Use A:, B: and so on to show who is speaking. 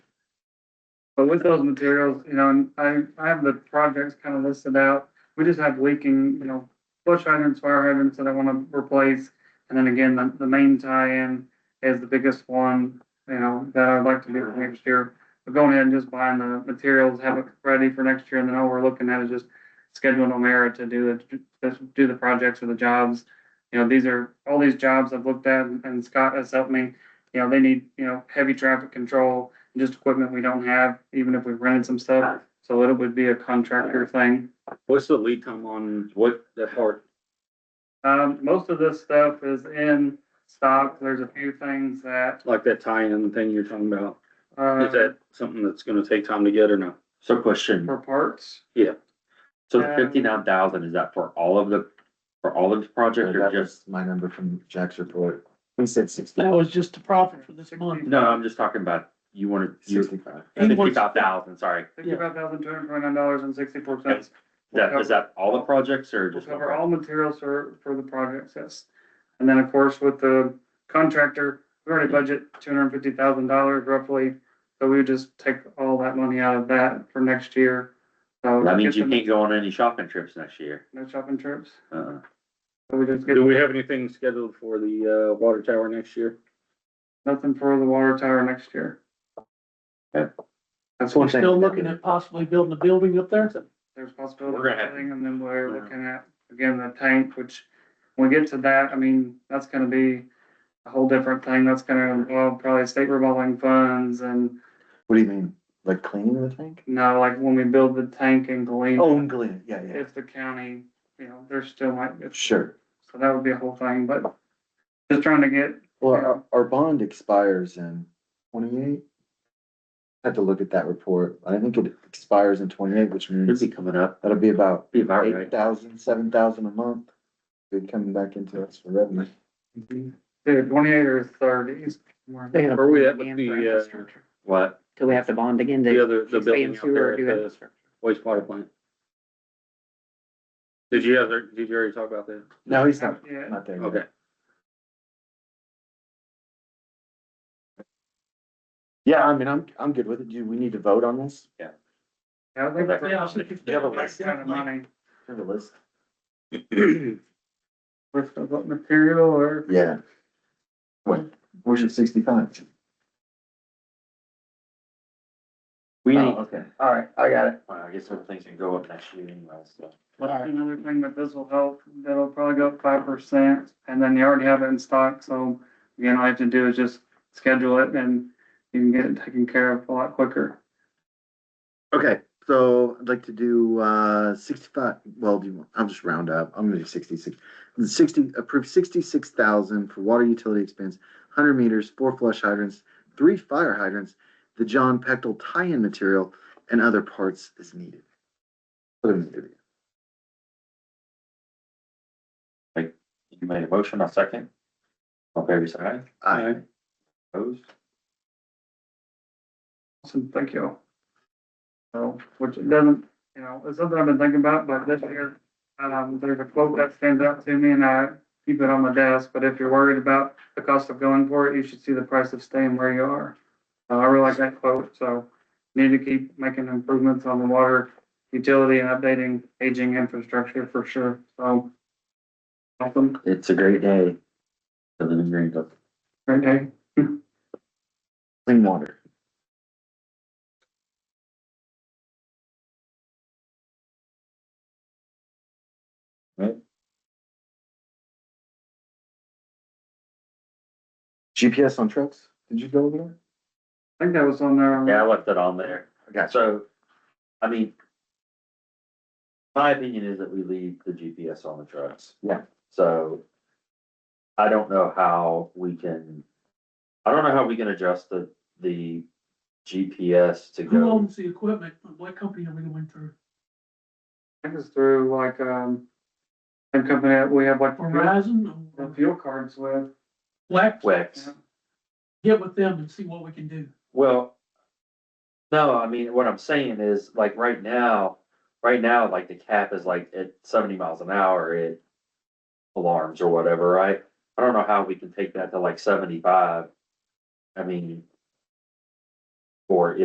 A: But with those materials, you know, and I, I have the projects kind of listed out. We just have leaking, you know, flush hydrants, fire hydrants that I want to replace. And then again, the, the main tie-in is the biggest one, you know, that I'd like to do for next year. But going ahead and just buying the materials, have it ready for next year, and then all we're looking at is just scheduling Omera to do the, to do the projects or the jobs. You know, these are, all these jobs I've looked at and Scott has helped me, you know, they need, you know, heavy traffic control just equipment we don't have, even if we rented some stuff. So it would be a contractor thing.
B: What's the lead time on what the part?
A: Um, most of this stuff is in stock. There's a few things that,
B: Like that tie-in thing you're talking about? Is
A: uh,
B: that something that's gonna take time to get or no?
C: So question,
A: for parts.
C: so the
A: Um,
C: fifty-nine thousand, is that for all of the, for all of the project or
D: That
C: just?
D: was my number from Jack's report. He said sixty,
E: That was just the profit for this month.
C: No, I'm just talking about, you wanted, you,
D: sixty-five.
C: fifty-five thousand, sorry. Is
A: Fifty-five thousand two hundred twenty-nine dollars and sixty-four cents.
C: that, is that all the projects or
A: We'll
C: just?
A: cover all materials for, for the projects, yes. And then, of course, with the contractor, we already budget two hundred and fifty thousand dollars roughly. So we would just take all that money out of that for next year. So
C: That means
A: get
C: you
A: the-
C: can't go on any shopping trips next year.
A: No shopping trips.
C: Uh,
A: So we just get.
B: Do we have anything scheduled for the, uh, water tower next year?
A: Nothing for the water tower next year.
C: Okay.
A: That's
E: We're
A: one thing.
E: still looking at possibly building a building up there.
A: There's possibility
C: We're
A: of
C: gonna have-
A: thing, and then we're looking at, again, the tank, which, when we get to that, I mean, that's gonna be a whole different thing. That's gonna involve probably state revolving funds and
D: What do you mean, like cleaning the tank?
A: now, like, when we build the tank in Galena,
D: Oh, cleaning, yeah, yeah,
A: if the county, you know, there still might, be-
D: sure.
A: so that would be a whole thing, but just trying to get,
D: Well, our, our bond expires in twenty-eight. Had to look at that report. I think it expires in twenty-eight, which
C: It'd
D: means
C: be coming up,
D: that'll be about
C: be about
D: eight
C: right.
D: thousand, seven thousand a month. Be coming back into us for revenue.
A: dude, twenty-eight or thirties. They
B: Where we at with the, uh,
C: What?
F: Do we have to bond again
B: the
F: to
B: other, the building
F: expand
B: out there
F: sewer or
B: at
F: do
B: the
F: infrastructure?
B: wastewater plant? Did you ever, did you already talk about that?
D: No, he's not,
A: Yeah.
D: not there. yet.
B: Okay.
D: Yeah, I mean, I'm, I'm good with it. Do we need to vote on this?
A: Yeah, I think
C: Okay.
A: that's- that's kind of money.
D: Have a list?
A: With the what material or
D: Yeah. What, where's your sixty-five?
C: We need,
D: Oh,
C: well,
D: okay.
E: All right, I got it.
C: I guess some things can go up next year anyway, so.
A: another thing that this will help, that'll probably go up five percent, and then you already have it in stock, so. Again, all you have to do is just schedule it and you can get it taken care of a lot quicker.
D: Okay, so I'd like to do, uh, sixty-five, well, do you, I'll just round up, I'm gonna do sixty-six. Sixty, approve sixty-six thousand for water utility expense, hundred meters, four flush hydrants, three fire hydrants, the John Pectel tie-in material, and other parts as needed. Put it in the video.
C: You made a motion, I'll second. All fair side,
D: Aye.
C: opposed?
A: Awesome, thank you. So, which it doesn't, you know, it's something I've been thinking about, but this year, um, there's a quote that stands out to me and I keep it on my desk, but if you're worried about the cost of going for it, you should see the price of staying where you are. Uh, I really like that quote, so need to keep making improvements on the water utility and updating aging infrastructure for sure, so. Awesome,
C: It's a great day. The living green book.
A: great day.
D: Clean water.
C: Right.
D: GPS on trucks, did you go over there?
A: I think that was on there. um,
C: Yeah, I left it on there.
D: I got
C: So, I mean, my opinion is that we leave the GPS on the trucks.
D: Yeah.
C: So I don't know how we can, I don't know how we can adjust the, the GPS to
E: Who
C: go.
E: owns the equipment? What company are we going through?
A: I think it's through like, um, a company that we have like.
E: Verizon
A: the
E: or
A: fuel cards with.
E: Black?
C: Wex.
E: Get with them and see what we can do.
C: Well, no, I mean, what I'm saying is like right now, right now, like the cap is like at seventy miles an hour, it alarms or whatever, right? I don't know how we can take that to like seventy-five. I mean, or